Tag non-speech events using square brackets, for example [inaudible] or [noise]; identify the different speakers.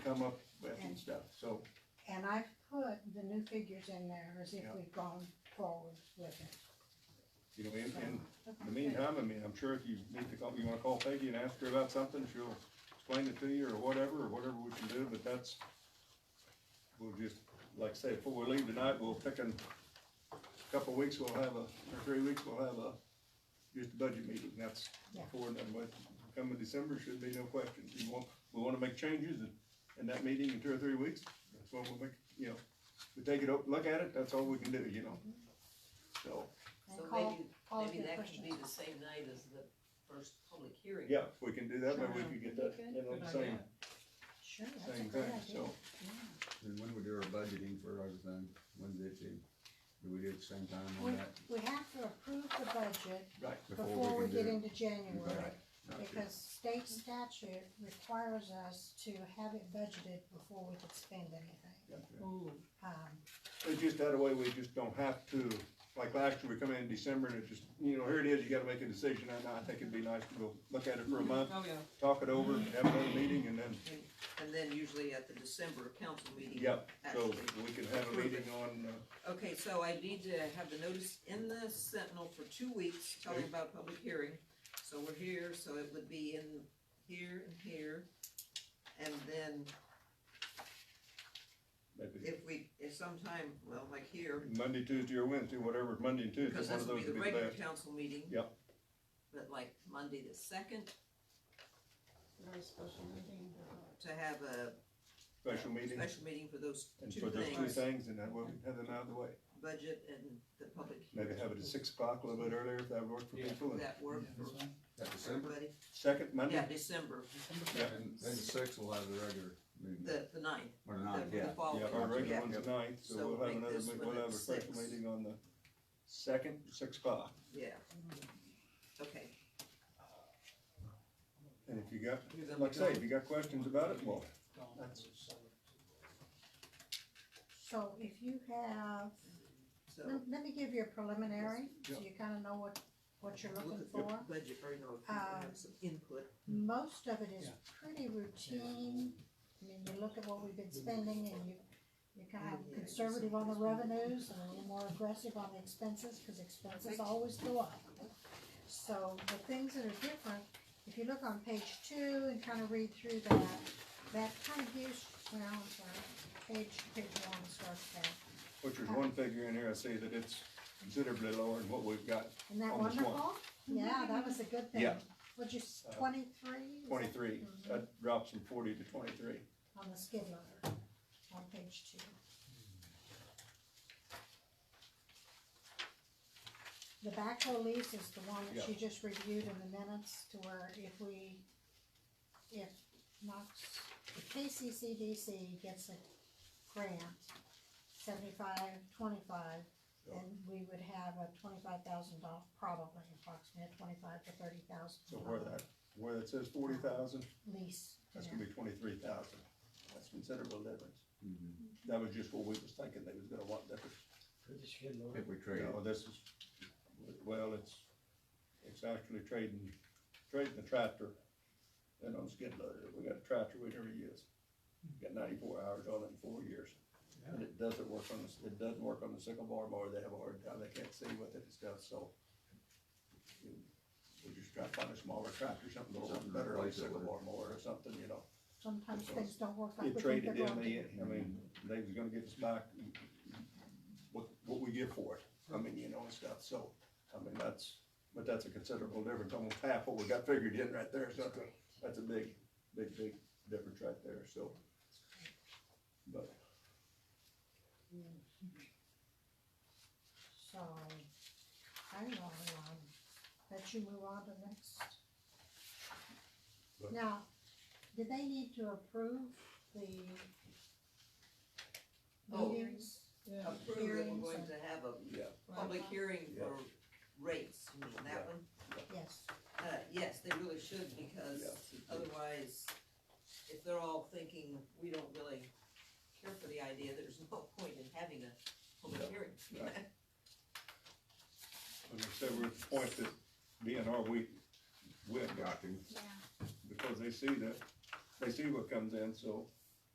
Speaker 1: come up with and stuff, so,
Speaker 2: And I've put the new figures in there as if
Speaker 1: Yeah.
Speaker 2: we've gone forward with it.
Speaker 1: you know, in, in
Speaker 2: Okay.
Speaker 1: the meantime, I mean, I'm sure if you need to call, you wanna call Peggy and ask her about something, she'll explain it to you or whatever, or whatever we can do, but that's, we'll just, like I say, before we leave tonight, we'll pick in, a couple weeks, we'll have a, or three weeks, we'll have a, just a budget meeting, that's
Speaker 2: Yeah.
Speaker 1: before, and then with, coming December, should be no questions, we want, we wanna make changes in, in that meeting in two or three weeks, that's when we'll make, you know, we take it, up, look at it, that's all we can do, you know? So,
Speaker 3: So
Speaker 2: And call,
Speaker 3: maybe,
Speaker 2: call if
Speaker 3: maybe
Speaker 2: you have
Speaker 3: that could be
Speaker 2: questions.
Speaker 3: the same night as the first public hearing.
Speaker 1: Yeah, if we can do that, maybe we could get that, you know,
Speaker 3: Good
Speaker 1: same,
Speaker 3: idea.
Speaker 2: Sure, that's a
Speaker 1: same
Speaker 2: great
Speaker 1: thing,
Speaker 2: idea.
Speaker 1: so,
Speaker 4: And when we do our budgeting for everything, when's it due? Do we do it at the same time
Speaker 2: We,
Speaker 4: on that?
Speaker 2: we have to approve the budget
Speaker 1: right,
Speaker 2: before we
Speaker 4: can
Speaker 2: get
Speaker 4: do-
Speaker 2: into January,
Speaker 4: Right. not to-
Speaker 2: because state statute requires us to have it budgeted before we could spend anything.
Speaker 3: Ooh,
Speaker 2: Um,
Speaker 1: it's just that way, we just don't have to, like last year, we come in December and it just, you know, here it is, you gotta make a decision, and I think it'd be nice to go look at it for a month,
Speaker 5: Oh, yeah.
Speaker 1: talk it over, have another meeting, and then,
Speaker 3: and, and then usually at the December council meeting.
Speaker 1: yep, so
Speaker 3: actually.
Speaker 1: we can have a meeting on, uh,
Speaker 3: Okay, so I need to have the notice in the Sentinel for two weeks, telling
Speaker 1: Okay.
Speaker 3: about public hearing. So we're here, so it would be in here and here. And then
Speaker 1: maybe
Speaker 3: if we, if sometime, well, like here,
Speaker 1: Monday, Tuesday, or Wednesday, whatever, Monday and Tuesday,
Speaker 3: because
Speaker 1: one
Speaker 3: this
Speaker 1: of
Speaker 3: will
Speaker 1: those
Speaker 3: be the
Speaker 1: would be the
Speaker 3: regular
Speaker 1: best.
Speaker 3: council meeting.
Speaker 1: Yep.
Speaker 3: But like Monday the second,
Speaker 5: Very special meeting.
Speaker 3: to have a
Speaker 1: Special meeting,
Speaker 3: special meeting for those
Speaker 1: and
Speaker 3: two
Speaker 1: for those two
Speaker 3: things,
Speaker 1: things, and that way we have them out of the way,
Speaker 3: budget and the public
Speaker 1: maybe
Speaker 3: hearing.
Speaker 1: have it at six o'clock, a little bit earlier, if that worked for
Speaker 6: Yeah.
Speaker 1: people, and
Speaker 3: That work for
Speaker 4: At December,
Speaker 3: everybody?
Speaker 1: second Monday,
Speaker 3: Yeah, December,
Speaker 1: Yeah.
Speaker 4: and then the sixth will have the regular meeting,
Speaker 3: the, the ninth,
Speaker 4: or the
Speaker 3: the
Speaker 4: ninth,
Speaker 3: the
Speaker 4: yeah.
Speaker 3: following,
Speaker 1: Yeah,
Speaker 3: yeah.
Speaker 1: our regular one's the ninth,
Speaker 3: So
Speaker 1: so we'll have
Speaker 3: make
Speaker 1: another,
Speaker 3: this
Speaker 1: meet-
Speaker 3: one
Speaker 1: we'll
Speaker 3: at
Speaker 1: have a special
Speaker 3: six.
Speaker 1: meeting on the second, six o'clock.
Speaker 3: Yeah. Okay,
Speaker 1: And if you got,
Speaker 3: Give them
Speaker 1: like I
Speaker 3: a
Speaker 1: say,
Speaker 3: go.
Speaker 1: if you got questions about it, well, that's,
Speaker 2: So if you have,
Speaker 3: so,
Speaker 2: let, let me give you a preliminary, so
Speaker 1: Yeah.
Speaker 2: you kinda know what, what you're
Speaker 3: look
Speaker 2: looking
Speaker 3: at
Speaker 2: for.
Speaker 3: the budget, or, you know, if you can
Speaker 2: Um,
Speaker 3: have some input,
Speaker 2: Most of it is
Speaker 6: Yeah.
Speaker 2: pretty routine, I mean, you look at what we've been spending and you, you're kind of conservative on the revenues and a little more aggressive on the expenses, cause expenses always go up. So the things that are different, if you look on page two and kind of read through that, that kind of gives, well, I'm sorry, uh, page, page one starts there.
Speaker 1: which is one figure in here, I say that it's considerably lower than what we've got,
Speaker 2: Isn't that
Speaker 1: On this one.
Speaker 2: wonderful? Yeah, that was a good thing.
Speaker 1: Yeah.
Speaker 2: Would you, s-
Speaker 1: Uh,
Speaker 2: twenty-three? Is that-
Speaker 1: twenty-three, that drops from forty to twenty-three.
Speaker 2: on the skid loader on page two. The backhoe lease is the one that she just reviewed in the minutes to where if we, if Knox, if KCCDC gets a grant, seventy-five, twenty-five, then we would have a twenty-five thousand dollar, probably approximately twenty-five to thirty thousand.
Speaker 1: So where that, where that says forty thousand,
Speaker 2: Lease.
Speaker 1: that's
Speaker 2: yeah.
Speaker 1: gonna be twenty-three thousand, that's considerable difference.
Speaker 4: Mhm.
Speaker 1: That was just what we was thinking, they was gonna want different,
Speaker 4: If we trade,
Speaker 1: no, Oh, this is, well, it's, it's actually trading, trading the tractor and on skid loader, uh, we got a tractor we never use. Got ninety-four hours on it in four years. And it doesn't work on this, it doesn't work on the sickle bar mower, they have a hard time, they can't see with it and stuff, so. We just try to find a smaller tractor, something a little
Speaker 4: Something to
Speaker 1: better, like
Speaker 4: replace it
Speaker 1: sickle
Speaker 4: with.
Speaker 1: bar mower or something, you know.
Speaker 2: Sometimes
Speaker 1: So
Speaker 2: things don't work like we
Speaker 1: It
Speaker 2: think
Speaker 1: traded in,
Speaker 2: they're going
Speaker 1: they,
Speaker 2: to.
Speaker 1: I mean, they was gonna get us back what, what we get for it, I mean, you know, and stuff, so, I mean, that's, but that's a considerable difference, almost half what we got figured in right there, so that's a, that's a big, big, big difference right there, so. But,
Speaker 2: So, I don't know, um, let you move on to next.
Speaker 1: But-
Speaker 2: Now, did they need to approve the
Speaker 3: Oh.
Speaker 2: meetings?
Speaker 5: Oh,
Speaker 3: approve that
Speaker 2: Hearings
Speaker 3: we're going
Speaker 2: and-
Speaker 3: to have a
Speaker 1: um, yeah,
Speaker 3: public hearing
Speaker 1: Yeah.
Speaker 3: for rates, you mean
Speaker 1: Yeah.
Speaker 3: that one?
Speaker 2: Yes,
Speaker 3: Uh, yes, they really should, because
Speaker 1: Yeah.
Speaker 3: otherwise, if they're all thinking, we don't really care for the idea, there's no [laughs] point in having a public
Speaker 1: Yeah.
Speaker 3: hearing.
Speaker 1: Right. and like I said, we're at the point that DNR, we, we have got to,
Speaker 2: yeah,
Speaker 1: because they see that, they see what comes in, so